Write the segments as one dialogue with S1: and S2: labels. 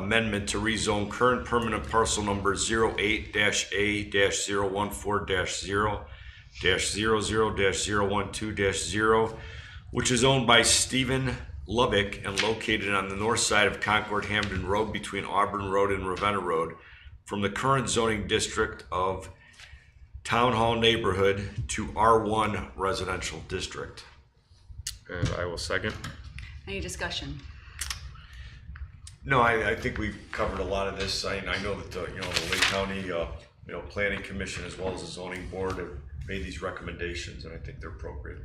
S1: amendment to rezone current permanent parcel number 8 A 14 0 0 12 zero, which is owned by Stephen Lubbock and located on the north side of Concord Hamden Road between Auburn Road and Ravenna Road from the current zoning district of Town Hall neighborhood to R1 residential district.
S2: And I will second.
S3: Any discussion?
S1: No, I, I think we've covered a lot of this. I, I know that, the, you know, the Lake County, uh, you know, Planning Commission as well as the zoning board have made these recommendations and I think they're appropriate.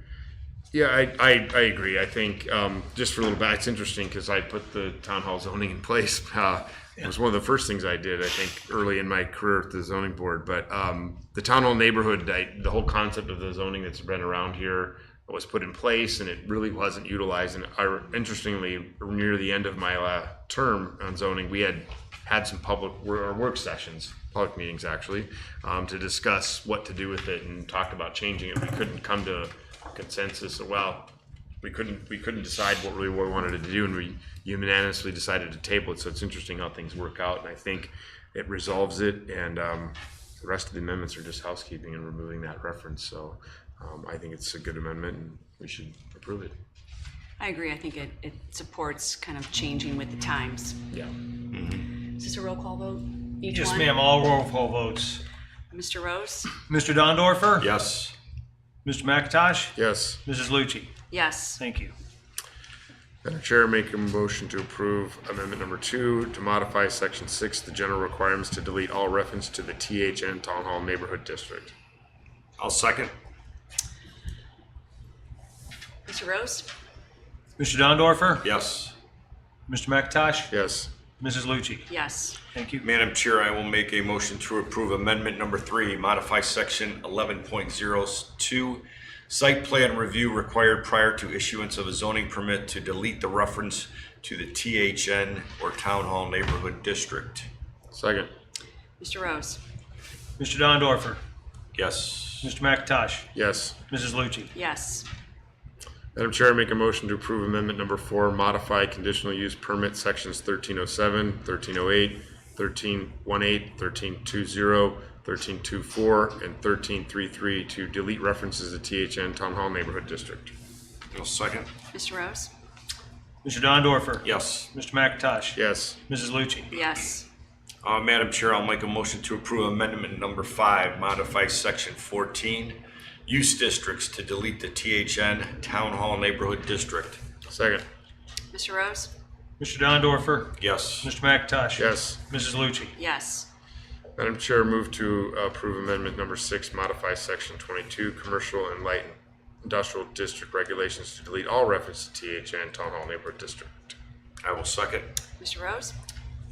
S2: Yeah, I, I, I agree. I think um, just for a little bit, it's interesting because I put the town hall zoning in place. Uh, it was one of the first things I did, I think, early in my career at the zoning board. But um, the town hall neighborhood, I, the whole concept of the zoning that's been around here was put in place and it really wasn't utilized. And I, interestingly, near the end of my uh, term on zoning, we had had some public wor- or work sessions, public meetings actually, um, to discuss what to do with it and talked about changing it. We couldn't come to consensus. Well, we couldn't we couldn't decide what really we wanted to do, and we unanimously decided to table it. So it's interesting how things work out, and I think it resolves it. And um, the rest of the amendments are just housekeeping and removing that reference. So um, I think it's a good amendment, and we should approve it.
S3: I agree. I think it, it supports kind of changing with the times.
S2: Yeah.
S3: Is this a roll call vote? Each
S4: Yes,
S3: one?
S4: ma'am, all roll call votes.
S3: Mr. Rose?
S4: Mr. Dondorfer?
S1: Yes.
S4: Mr. McIntosh?
S2: Yes.
S4: Mrs. Lucci?
S3: Yes.
S4: Thank you.
S2: Madam Chair, make a motion to approve amendment number two to modify section six, the general requirements to delete all reference to the THN Town Hall Neighborhood District.
S1: I'll second.
S3: Mr. Rose?
S4: Mr. Dondorfer?
S1: Yes.
S4: Mr. McIntosh?
S2: Yes.
S4: Mrs. Lucci?
S3: Yes.
S4: Thank you.
S1: Madam Chair, I will make a motion to approve amendment number three, modify section eleven point zero two, site plan review required prior to issuance of a zoning permit to delete the reference to the THN or Town Hall Neighborhood District.
S2: Second.
S3: Mr. Rose?
S4: Mr. Dondorfer?
S1: Yes.
S4: Mr. McIntosh?
S2: Yes.
S4: Mrs. Lucci?
S3: Yes.
S2: Madam Chair, I make a motion to approve amendment number four, modify conditional use permit sections 1307, 1308, 1318, 1320, 1324, and 1333 to delete references to THN Town Hall Neighborhood District.
S1: I'll second.
S3: Mr. Rose?
S4: Mr. Dondorfer?
S1: Yes.
S4: Mr. McIntosh?
S2: Yes.
S4: Mrs. Lucci?
S3: Yes.
S1: Uh, Madam Chair, I'll make a motion to approve amendment number five, modify section fourteen, use districts to delete the THN Town Hall Neighborhood District.
S2: Second.
S3: Mr. Rose?
S4: Mr. Dondorfer?
S1: Yes.
S4: Mr. McIntosh?
S2: Yes.
S4: Mrs. Lucci?
S3: Yes.
S2: Madam Chair, move to approve amendment number six, modify section 22, commercial and light industrial district regulations to delete all reference to THN Town Hall Neighborhood District.
S1: I will second.
S3: Mr. Rose?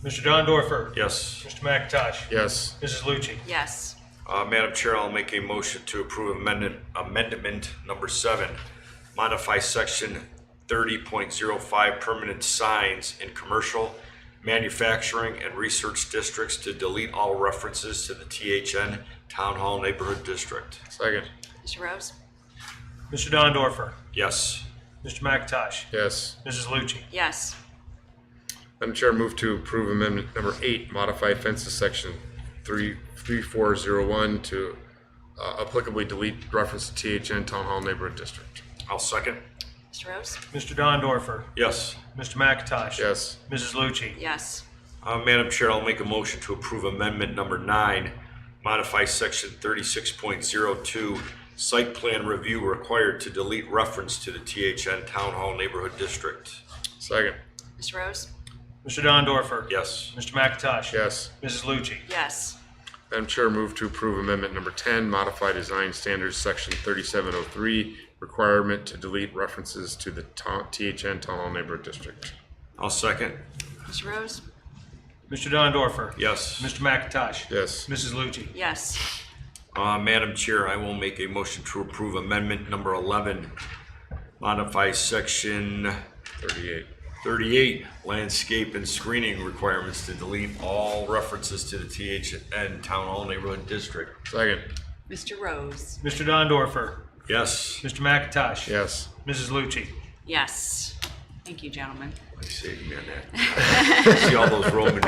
S4: Mr. Dondorfer?
S1: Yes.
S4: Mr. McIntosh?
S2: Yes.
S4: Mrs. Lucci?
S3: Yes.
S1: Uh, Madam Chair, I'll make a motion to approve amendment, amendment number seven, modify section thirty point zero five permanent signs in commercial, manufacturing, and research districts to delete all references to the THN Town Hall Neighborhood District.
S2: Second.
S3: Mr. Rose?
S4: Mr. Dondorfer?
S1: Yes.
S4: Mr. McIntosh?
S2: Yes.
S4: Mrs. Lucci?
S3: Yes.
S2: Madam Chair, move to approve amendment number eight, modify fences section three, three, four, zero, one to uh, applicably delete reference to THN Town Hall Neighborhood District.
S1: I'll second.
S3: Mr. Rose?
S4: Mr. Dondorfer?
S1: Yes.
S4: Mr. McIntosh?
S2: Yes.
S4: Mrs. Lucci?
S3: Yes.
S1: Uh, Madam Chair, I'll make a motion to approve amendment number nine, modify section thirty-six point zero two, site plan review required to delete reference to the THN Town Hall Neighborhood District.
S2: Second.
S3: Mr. Rose?
S4: Mr. Dondorfer?
S1: Yes.
S4: Mr. McIntosh?
S2: Yes.
S4: Mrs. Lucci?
S3: Yes.
S2: Madam Chair, move to approve amendment number ten, modify design standards section thirty-seven oh three, requirement to delete references to the Ta- THN Town Hall Neighborhood District.
S1: I'll second.
S3: Mr. Rose?
S4: Mr. Dondorfer?
S1: Yes.
S4: Mr. McIntosh?
S2: Yes.
S4: Mrs. Lucci?
S3: Yes.
S1: Uh, Madam Chair, I will make a motion to approve amendment number eleven, modify section
S2: Thirty-eight.
S1: thirty-eight, landscape and screening requirements to delete all references to the THN Town Hall Neighborhood District.
S2: Second.
S3: Mr. Rose?
S4: Mr. Dondorfer?
S1: Yes.
S4: Mr. McIntosh?
S2: Yes.
S4: Mrs. Lucci?
S3: Yes. Thank you, gentlemen.
S1: They saved me on that. See all those Roman